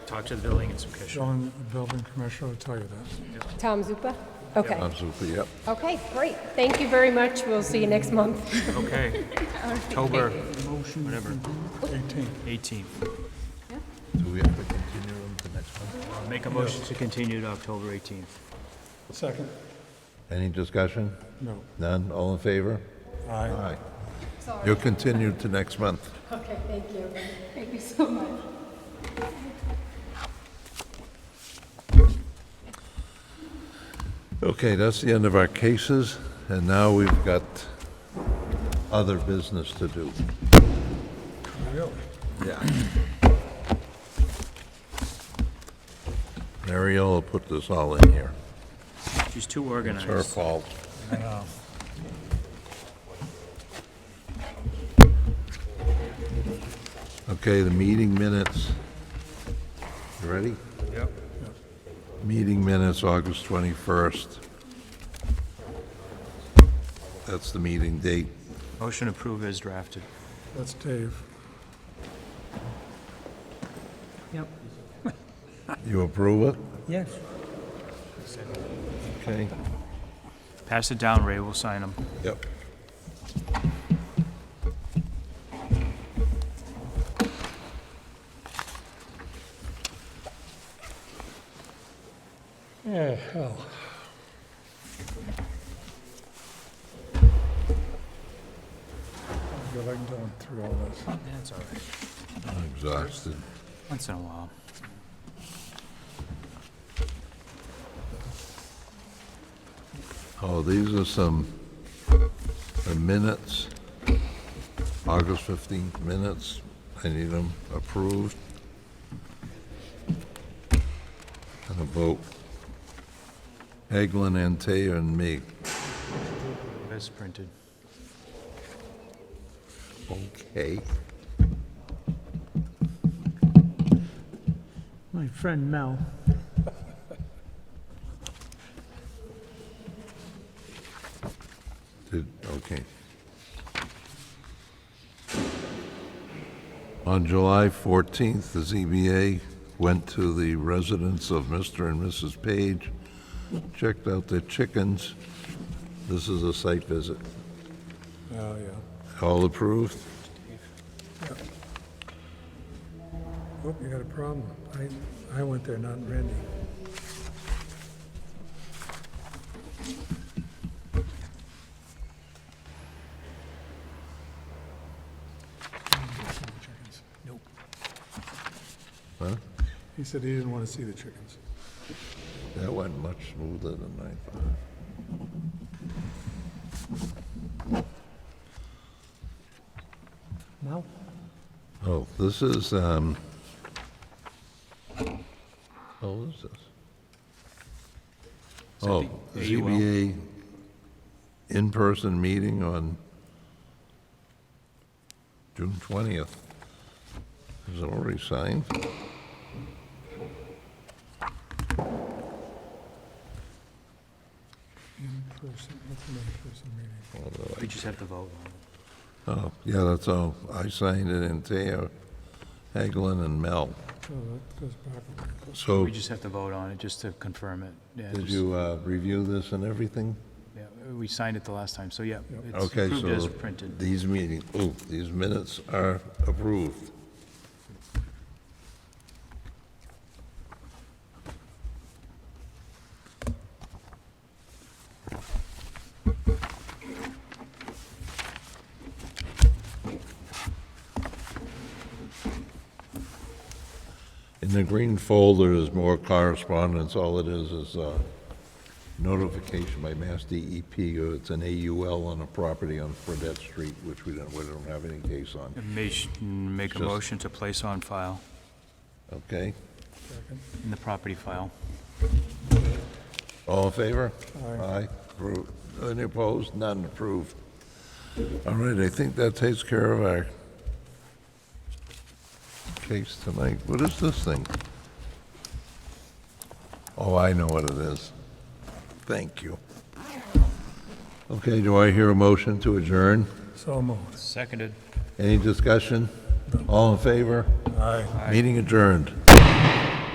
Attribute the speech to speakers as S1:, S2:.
S1: talk to the building inspection.
S2: John, building commissioner, will tell you that.
S3: Tom Zupa? Okay,
S4: I'm super, yep.
S3: okay, great. Thank you very much. We'll see you next month.
S1: Okay. October
S2: Whatever. 18.
S1: 18th.
S4: Do we have to continue them to next month?
S1: I'll Make a motion to continue to October 18th.
S2: Second?
S4: Any discussion?
S2: No.
S4: None? All in favor?
S2: Aye.
S4: Aye. You're continued to next month.
S3: Okay, thank you. Thank you so much.
S4: Okay, that's the end of our cases, and now we've got other business to do.
S2: Really?
S4: Yeah. Mariella put this all in here.
S1: She's too
S4: It's her
S1: organized.
S4: fault.
S2: I know.
S4: Okay, the meeting minutes. You ready?
S1: Yep.
S4: Meeting minutes, August 21st. That's the meeting date.
S1: Motion approved as drafted.
S2: That's Dave.
S5: Yep,
S4: You approve it?
S5: yes.
S4: Okay.
S1: Pass it down, Ray, we'll sign them.
S4: Yep.
S2: Oh, hell. I'm good, I can go through all this.
S1: That's all right.
S4: I'm exhausted.
S1: Once in a while.
S4: Oh, these are some, the minutes, August 15th minutes. I need them approved. And a vote. Eglin, Antaya, and me.
S1: As printed.
S4: Okay.
S5: My friend Mel.
S4: Did, okay. On July 14th, the ZBA went to the residence of Mr. and Mrs. Page, checked out their chickens. This is a site visit.
S2: Oh, yeah.
S4: All approved?
S2: Oop, Oh, you got a problem. I, I went there, not Randy. Nope.
S4: Huh?
S2: He said he didn't want to see the chickens.
S4: That went much smoother than I thought.
S5: Mel?
S4: Oh, this is, um, oh, what is this? Oh, ZBA in-person meeting on June twentieth. Is it already signed?
S2: In-person, what's an in-person meeting?
S4: Although
S1: We just have to vote on it.
S4: I- Oh, yeah, that's all. I signed it in Teo, Hagelin and Mel.
S2: Oh, that goes back.
S4: So,
S1: We just have to vote on it, just to confirm it. Yeah,
S4: did
S1: just-
S4: you, uh, review this and everything?
S1: yeah, We signed it the last time, so yeah, it's
S4: Okay,
S1: approved as
S4: so
S1: printed.
S4: these meeting, ooh, these minutes are approved. In the green folder is more correspondence. All it is is uh, notification by Mass DEP, or it's an AUL on a property on Fredette Street, which we don't, we don't have any case on,
S1: And ma- sh- Make a
S4: Just-
S1: motion to place on file,
S4: okay?
S1: in the property file.
S4: All in favor?
S2: Aye.
S4: Appro- Any opposed? None approved. All right, I think that takes care of our case tonight. What is this thing? Oh, I know what it is. Thank you. Okay, do I hear a motion to adjourn?
S2: So moved.
S1: Seconded.
S4: Any discussion? All in favor?
S2: Aye.
S4: Meeting adjourned.